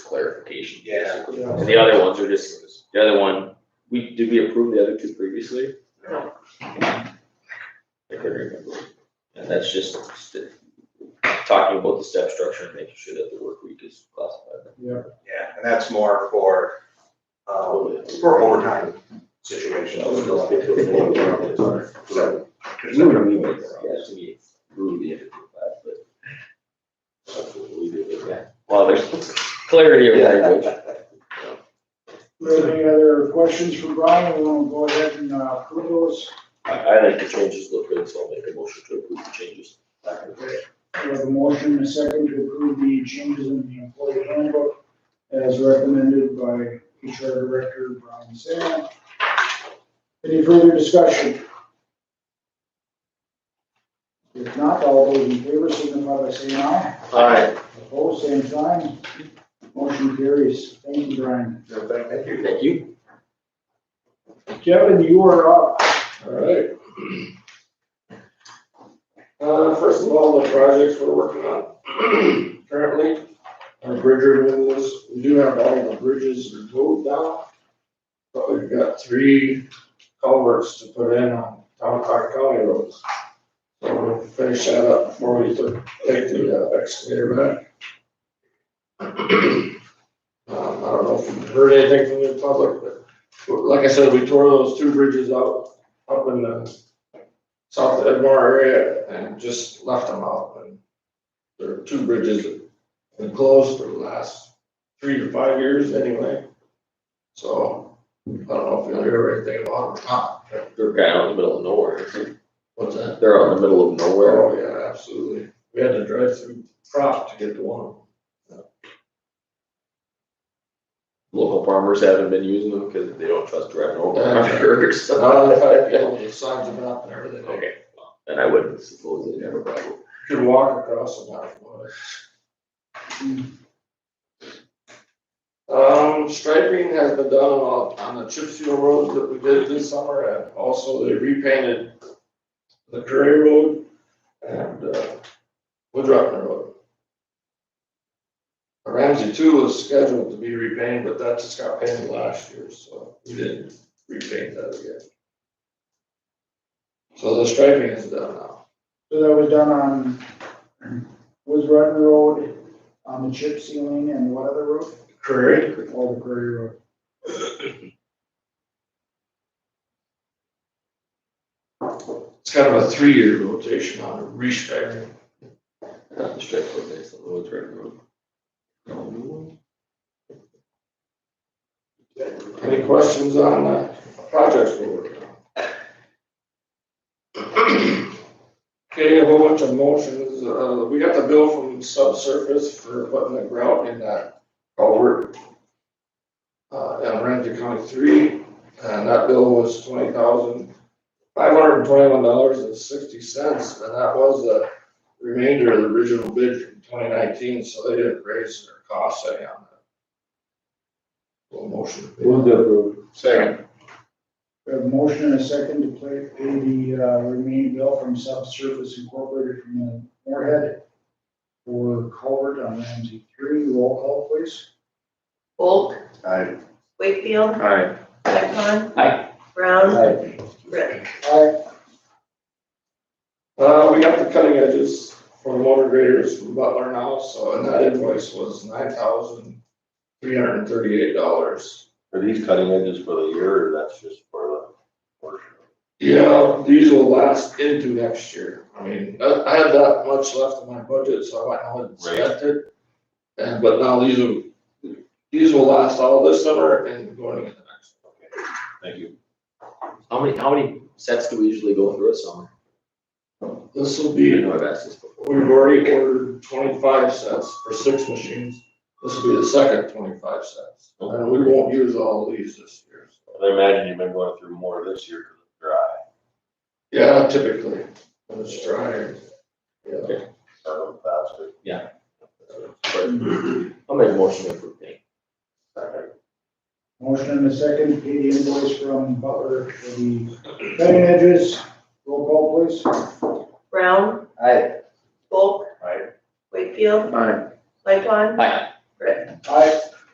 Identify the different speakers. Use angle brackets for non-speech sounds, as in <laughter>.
Speaker 1: application.
Speaker 2: Yeah.
Speaker 1: And the other ones are just, the other one, we, did we approve the other two previously?
Speaker 2: No.
Speaker 1: I couldn't remember. And that's just st- talking about the step structure and making sure that the work week is classified.
Speaker 2: Yeah, and that's more for, um, for overtime situations. So,
Speaker 1: We
Speaker 2: there's no-
Speaker 1: would meet with, yeah, to be really into that, but. that's what we do with that. Well, there's clarity of language.
Speaker 3: Any other questions from Brian? We want to go ahead and uh, approve those.
Speaker 1: I, I like the changes look good, so I'll make a motion to approve the changes.
Speaker 3: We have a motion and a second to approve the changes in the employee handbook as recommended by HR Director Brian Sam. Any further discussion? If not, all those in favor signify by saying aye.
Speaker 2: Aye.
Speaker 3: Opposed, same sign. Motion carries. Thank you, Brian.
Speaker 2: No, Thank you.
Speaker 1: Thank you.
Speaker 3: Kevin, you are up.
Speaker 4: All right. Uh, first of all, the projects we're working on <clears throat> currently, our bridge removals, we do have all the bridges removed now. But we've got three culverts to put in on town car county roads. So we'll finish that up before we took- take the uh, excavator back. Um, I don't know if you've heard anything from the public, but but like I said, we tore those two bridges out, up in the south Edmore area and just left them out. And There are two bridges that have been closed for the last three to five years anyway. So I don't know if you'll hear anything about them. Ah,
Speaker 1: They're kind of in the middle of nowhere.
Speaker 4: What's that?
Speaker 1: They're out in the middle of nowhere.
Speaker 4: Oh, yeah, absolutely. We had to drive through crop to get to one.
Speaker 1: Local farmers haven't been using them because they don't trust driving over.
Speaker 4: Yeah.
Speaker 1: or <laughs>
Speaker 4: But now
Speaker 1: something.
Speaker 4: they've had, you know, the signs have been up and everything.
Speaker 1: Okay, well, then I wouldn't suppose they never probably.
Speaker 4: Could walk across the mountain. Um, striping has been done on, on the chip seal roads that we did this summer, and also they repainted the Curry Road and, uh, Woodruffner Road. Ramsey two was scheduled to be repainted, but that just got painted last year, so we didn't repaint that again. So the striping is done now.
Speaker 3: So that was done on, was Rutland Road, on the chip ceiling and what other road?
Speaker 4: Curry?
Speaker 3: All the Prairie Road.
Speaker 4: It's kind of a three-year rotation on a restriking.
Speaker 1: I thought the strip was nice, the roads right road.
Speaker 4: Any questions on uh, projects we're working on? Okay, a whole bunch of motions. Uh, we got the bill from subsurface for putting the grout in that culvert. Uh, in Ramsey County three, and that bill was twenty thousand five hundred and twenty-one dollars and sixty cents. And that was the remainder of the original bid from twenty nineteen, so they didn't raise their costs any on that. Little motion. Second.
Speaker 3: We have a motion and a second to play, pay the uh, remaining bill from Subsurface Incorporated from the Moorhead for culvert on Ramsey three, roll call please.
Speaker 5: Bulk,
Speaker 2: Aye.
Speaker 5: Wakefield,
Speaker 1: Alright.
Speaker 5: Lightcon.
Speaker 1: Aye.
Speaker 5: Brown,
Speaker 3: Aye.
Speaker 5: Reddick.
Speaker 3: Aye,
Speaker 4: Uh, we got the cutting edges for the motor graders from Butler now, so, and that invoice was nine thousand three hundred and thirty-eight dollars.
Speaker 6: Are these cutting edges for the year, or that's just for the portion?
Speaker 4: Yeah, these will last into next year. I mean, I, I had that much left in my budget, so I went ahead and spent it. And, but now these will, these will last all this summer and going into next.
Speaker 6: Thank you.
Speaker 1: How many, how many sets do we usually go through a summer?
Speaker 4: This will
Speaker 1: I
Speaker 4: be
Speaker 1: know I've asked this before.
Speaker 4: We've already ordered twenty-five sets for six machines. This will be the second twenty-five sets. And we won't use all of these this year. so.
Speaker 6: I imagine you've been going through more this year because it's dry.
Speaker 4: Yeah, typically, when it's dry. Yeah.
Speaker 6: so faster.
Speaker 1: I'll make a motion to approve that.
Speaker 3: motion and a second to pay the invoice from Butler for the cutting edges, roll call please.
Speaker 5: Brown.
Speaker 2: Aye.
Speaker 5: Bulk.
Speaker 6: Aye.
Speaker 5: Wakefield.
Speaker 1: Aye.
Speaker 5: Lightcon.
Speaker 1: Aye.
Speaker 3: Aye.